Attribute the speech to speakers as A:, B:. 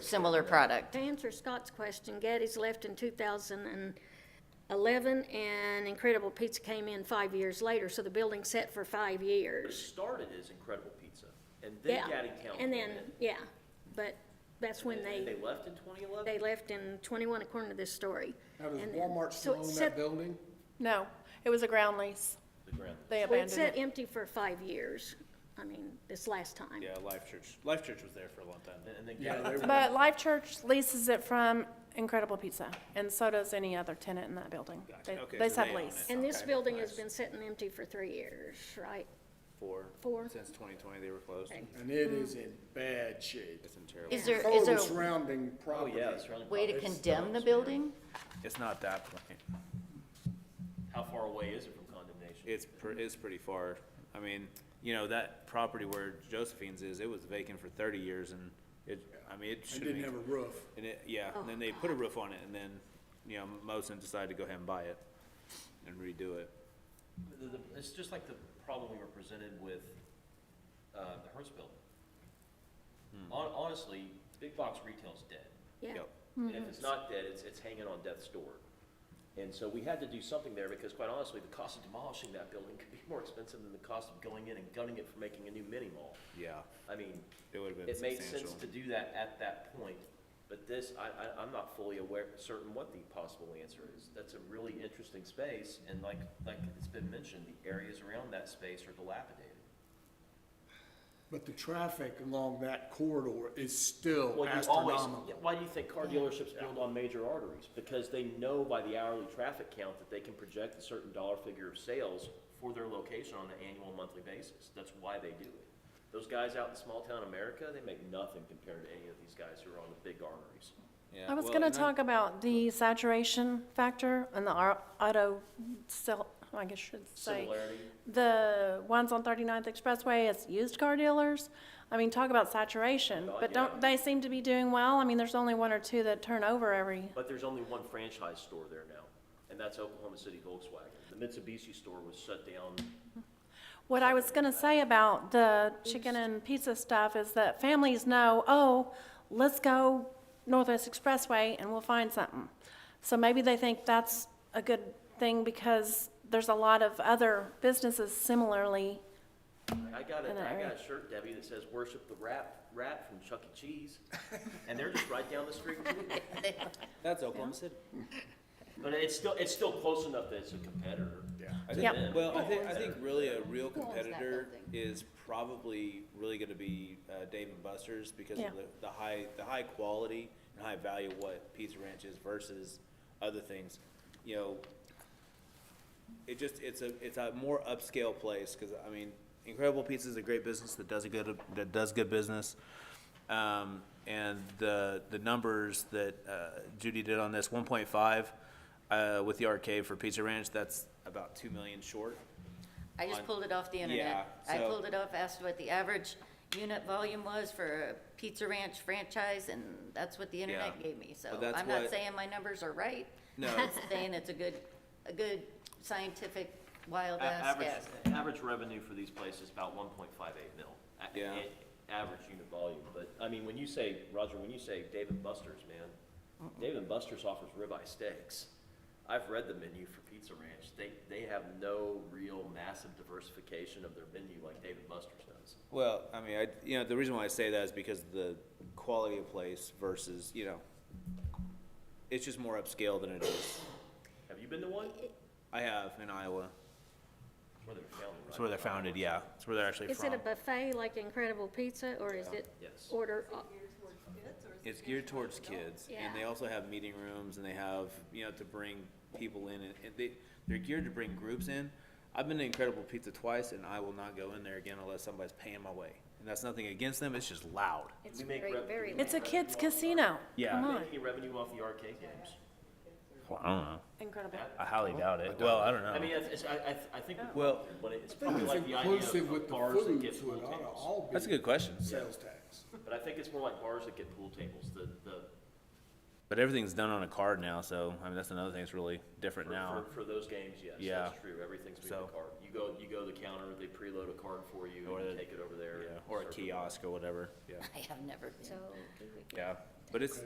A: similar product.
B: To answer Scott's question, Gaddy's left in two thousand and eleven, and Incredible Pizza came in five years later, so the building's set for five
C: It
B: years.
C: started as Incredible Pizza, and then
B: Yeah,
C: Gaddingtown came
B: And
C: in.
B: then, yeah, but that's when
C: And then
B: they,
C: They left in twenty eleven?
B: they left in twenty-one according to this story.
D: Now, does
B: And then-
D: Walmart
B: so
D: still
B: it
D: own
B: set-
D: that building?
E: No, it was a ground lease.
C: The ground.
E: They
B: Well, it
E: abandoned
B: sat
E: it.
B: empty for five years, I mean, this last time.
F: Yeah, Life Church, Life Church was there for a long time.
C: And then
D: Yeah,
C: Gaddingtown,
D: they were-
E: But Life Church leases it from Incredible Pizza, and so does any other tenant in that building. They,
F: Okay,
E: they
F: so
E: sub
F: they own
E: lease.
F: it.
B: And this
F: Okay,
B: building has
F: nice.
B: been sitting empty for three years, right?
F: Four.
B: Four.
F: Since twenty twenty, they were closed.
B: Okay.
D: And it is in bad shape.
F: It's in terrible.
A: Is there,
D: So
A: is
D: are
A: there
D: the surrounding
C: oh
D: property.
C: yeah, it's around
A: a
C: the
A: way to
C: property.
A: condemn the building?
F: It's not that plain.
C: How far away is it from condemnation?
F: It's, pre- it's pretty far. I mean, you know, that property where Josephine's is, it was vacant for thirty years and it, I mean, it
D: It
F: should
D: didn't
F: be.
D: have a roof.
F: And it, yeah, and then they put a roof on it and then, you know, Mosin decided to go ahead and buy it and redo it.
C: The- the- It's just like the problem we were presented with, uh, the Hertz building. Hon- Honestly, big box retail's dead.
B: Yeah.
F: Yep.
C: And if it's not dead, it's, it's hanging on death's door. And so we had to do something there because quite honestly, the cost of demolishing that building could be more expensive than the cost of going in and gunning it for making a new mini mall.
F: Yeah,
C: I mean,
F: it would have been
C: it made sense
F: substantial.
C: to do that at that point, but this, I, I, I'm not fully aware, certain what the possible answer is. That's a really interesting space, and like, like it's been mentioned, the areas around that space are dilapidated.
D: But the traffic along that corridor is still
C: Well, you always,
D: astronomical.
C: yeah, why do you think car dealerships build on major arteries? Because they know by the hourly traffic count that they can project a certain dollar figure of sales for their location on an annual, monthly basis. That's why they do it. Those guys out in small town America, they make nothing compared to any of these guys who are on the big arteries.
F: Yeah,
E: I was
F: well,
E: gonna
F: and I-
E: talk about the saturation factor and the au- auto sell, I guess I should say.
C: Similarity.
E: The ones on 39th Expressway as used car dealers. I mean, talk about saturation,
C: Oh,
E: but
C: yeah.
E: don't, they seem to be doing well. I mean, there's only one or two that turn over every,
C: But there's only one franchise store there now, and that's Oklahoma City Volkswagen. The Mitsubishi store was shut down.
E: What I was gonna say about the chicken and pizza stuff is that families know, oh, let's go Northwest Expressway and we'll find something. So maybe they think that's a good thing because there's a lot of other businesses similarly.
C: I got a,
E: In that
C: I got
E: area.
C: a shirt, Debbie, that says worship the rat, rat from Chuck E. Cheese, and they're just right down the street from me.
F: That's Oklahoma City.
C: But it's still, it's still close enough that it's a competitor. Oh,
D: Yeah.
F: I think-
E: Yeah.
F: Well, I think, I think really a real
A: Who owns that
F: competitor
A: building?
F: is probably really gonna be, uh, Dave and Buster's because
E: Yeah.
F: of the, the high, the high quality and high value of what Pizza Ranch is versus other things. You know, it just, it's a, it's a more upscale place, cause I mean, Incredible Pizza is a great business that does a good, that does good business. Um, and the, the numbers that, uh, Judy did on this, one point five, uh, with the arcade for Pizza Ranch, that's about two million short.
A: I just
F: On-
A: pulled it off the internet.
F: Yeah,
A: I
F: so-
A: pulled it off, asked what the average unit volume was for a Pizza Ranch franchise, and that's what the internet
F: Yeah.
A: gave me. So
F: But that's
A: I'm not
F: what-
A: saying my numbers are right.
F: No.
A: I'm Saying it's a good, a good scientific wild
C: A-
A: ass
C: Average,
A: guess.
C: average revenue for these places is about one point five eight mil. a-
F: Yeah.
C: a- Average unit volume, but, I mean, when you say, Roger, when you say Dave and Buster's, man, Dave and Buster's offers ribeye steaks. I've read the menu for Pizza Ranch. They, they have no real massive diversification of their menu like Dave and Buster's does.
F: Well, I mean, I, you know, the reason why I say that is because of the quality of place versus, you know, it's just more upscale than it is.
C: Have you been to one?
F: I have in Iowa.
C: It's where they're founded, right?
F: It's where they're founded, yeah. It's where they're actually
B: Is it a
F: from.
B: buffet like Incredible Pizza, or is it
C: Yes.
B: order, uh,
F: It's geared towards kids, and they
B: Yeah.
F: also have meeting rooms, and they have, you know, to bring people in, and and they, they're geared to bring groups in. I've been to Incredible Pizza twice, and I will not go in there again unless somebody's paying my way. And that's nothing against them, it's just loud.
B: it's
C: We make
B: very,
C: rep-
B: very.
E: It's a kids casino.
F: Yeah.
E: Come
C: Make
E: on.
C: Any revenue off the arcade games?
F: Well, I don't know.
E: Incredible.
F: I highly doubt it. Well, I don't
C: I mean, it's, it's- I, I, I think. we-
F: Well-
C: But it's
D: I think
C: probably
D: it's
C: like the idea
D: inclusive with
C: of
D: the
C: bars that
D: food,
C: get
D: so
C: pool
D: it ought to
C: tables.
D: all be.
F: That's a good question.
D: Sales tax.
C: But I think it's more like bars that get pool tables, the, the,
F: But everything's done on a card now, so I mean that's another thing that's really different now.
C: for, for, for those games, yes,
F: Yeah.
C: that's true, everything's being
F: So-
C: a card. You go, you go to the counter, they preload a card for you,
F: Or
C: and you
F: the-
C: take it over there.
F: Yeah,
C: and
F: or a
C: serve it.
F: kiosk or whatever. Yeah.
A: I have never been.
B: So,
F: Yeah. But it's,